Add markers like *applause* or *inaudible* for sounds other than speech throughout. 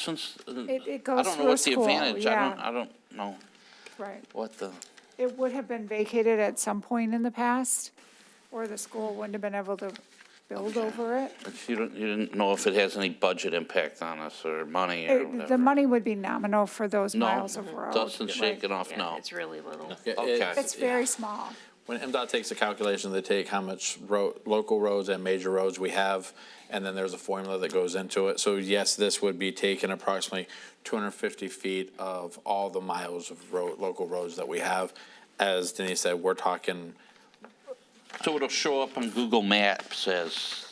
absence? It- it uh, I don't goes know through what's the school, advantage. I don't, yeah. I don't know Right. what the, It would have been vacated at some point in the past, or the school wouldn't have been able to build over it. but you don't, you didn't know if it has any budget impact on us or money or It- whatever. The money would be nominal for those No, miles of road. doesn't shake it off, Yeah, no. It's really little. Yeah, Okay. it's- It's very small. When MDOT takes a calculation, they take how much road, local roads and major roads we have, and then there's a formula that goes into it. So yes, this would be taking approximately two hundred and fifty feet of all the miles of road, local roads that we have. As Denise said, we're talking, So it'll show up on Google Maps as,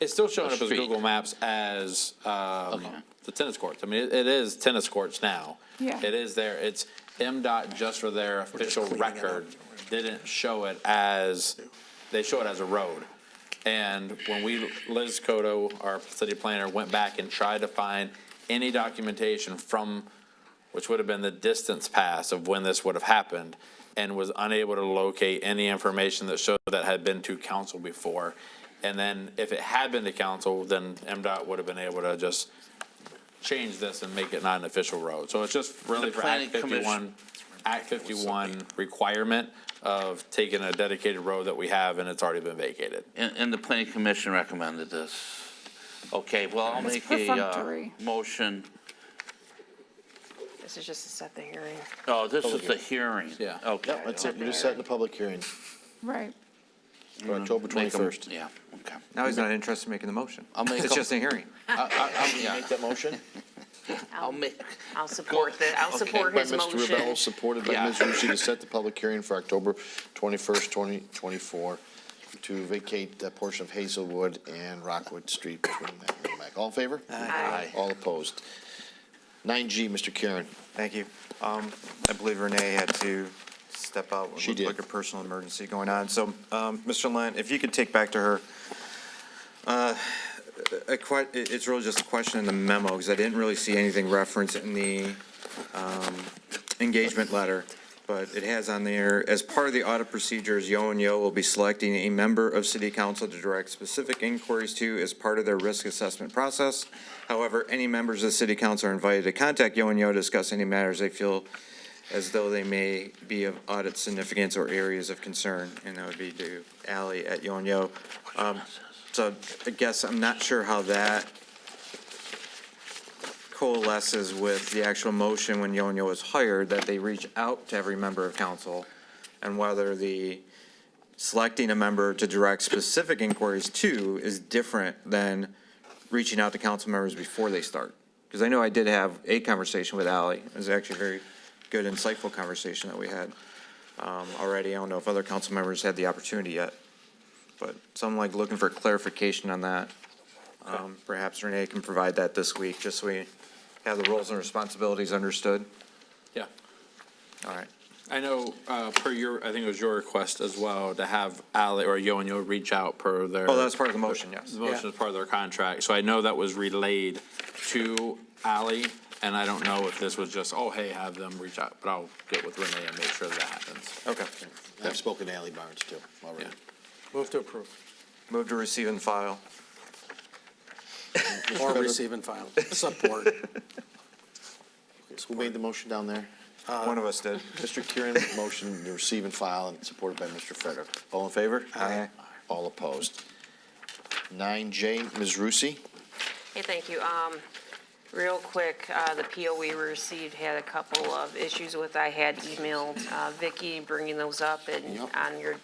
it's still showing A up as street. Google Maps as, um, Okay. the tennis courts. I mean, it- it is tennis courts now. Yeah. It is there. It's MDOT just for their official cleaning it up. record didn't show it as, they show it as a road. And when we, Liz Coto, our city planner, went back and tried to find any documentation from, which would have been the distance pass of when this would have happened, and was unable to locate any information that showed that had been to council before. And then if it had been to council, then MDOT would have been able to just change this and make it not an official road. So it's just really The for Act planning commission- fifty-one, Act fifty-one requirement of taking a dedicated road that we have and it's already been vacated. and, and the planning commission recommended this. Okay, well, I'll It's make a, uh, perfunctory. motion. This is just to set the hearing. Oh, this is the hearing. Yeah. Okay. Yep, that's it. You're just setting the public hearing Right. for October Make 'em- 21st. Yeah, okay. Now he's not interested in making the motion. I'll make *laughs* It's a- just a hearing. Can you Yeah. Make that motion? I'll make, I'll support the, I'll Okay. support By his Mr. Rebello, motion. supported by Yeah. Ms. Rucci to set the public hearing for October 21st, 2024, to vacate that portion of Hazelwood and Rockwood Street between that and Merrimack. All in favor? Aye. All opposed? 9G, Mr. Karen. Thank you. Um, I believe Renee had to step out. She did. It looked like a personal emergency going on. So, um, Mr. Lund, if you could take back to her, uh, a que, it- it's really just a question in the memo, because I didn't really see anything referenced in the, um, engagement letter. But it has on there, as part of the audit procedures, Yo and Yo will be selecting a member of city council to direct specific inquiries to as part of their risk assessment process. However, any members of the city council are invited to contact Yo and Yo to discuss any matters they feel as though they may be of audit significance or areas of concern, and that would be to Ally at Yo and Yo. Um, So I guess I'm not sure how that coalesces with the actual motion when Yo and Yo was hired, that they reach out to every member of council, and whether the selecting a member to direct specific inquiries to is different than reaching out to council members before they start. Because I know I did have a conversation with Ally. It was actually a very good, insightful conversation that we had um, already. I don't know if other council members had the opportunity yet. But so I'm like looking for clarification on that. Um, Perhaps Renee can provide that this week, just so we have the roles and responsibilities understood. Yeah. All right. I know, uh, per your, I think it was your request as well to have Ally or Yo and Yo reach out per their. Oh, that's part of the motion, yes. The motion is part of their contract, so I know that was relayed to Ally, and I don't know if this was just, oh, hey, have them reach out, but I'll get with Renee and make sure that happens. Okay. I've spoken to Ally Barnes, too, already. Move to approve. Move to receive and file. Or receive and file. *laughs* Support. Who made the motion down there? One of us did. Mr. Kieran, motion to receive and file, and supported by Mr. Frederick. All in favor? Aye. All opposed? 9J, Ms. Rucci. Hey, thank you. Um, real quick, uh, the PO we received had a couple of issues with, I had emailed, uh, Vicky, bringing those up and Yep. on your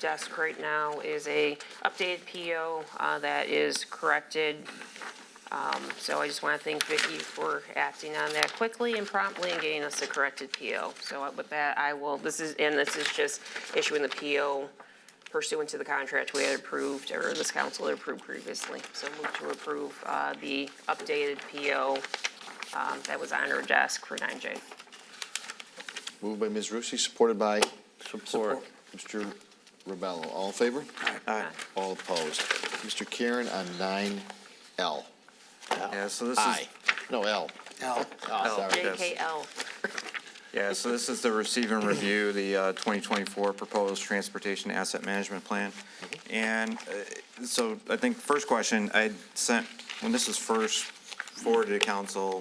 desk right now is a updated PO, uh, that is corrected. Um, so I just want to thank Vicky for acting on that quickly and promptly and getting us the corrected PO. So with that, I will, this is, and this is just issuing the PO pursuant to the contract we had approved, or this council had approved previously. So move to approve uh, the updated PO um, that was on our desk for 9J. Moved by Ms. Rusi, supported by support. Mr. Rebello. All in favor? Aye. All opposed? Mr. Karen on nine L. Yeah, so this is, I. No, L. Al, Oh, sorry. yes. JKL. yeah, so this is the receive and review, the uh, 2024 Proposed Transportation Asset Management Plan. Mm-hmm. And uh, so I think first question, I sent, when this was first forward to council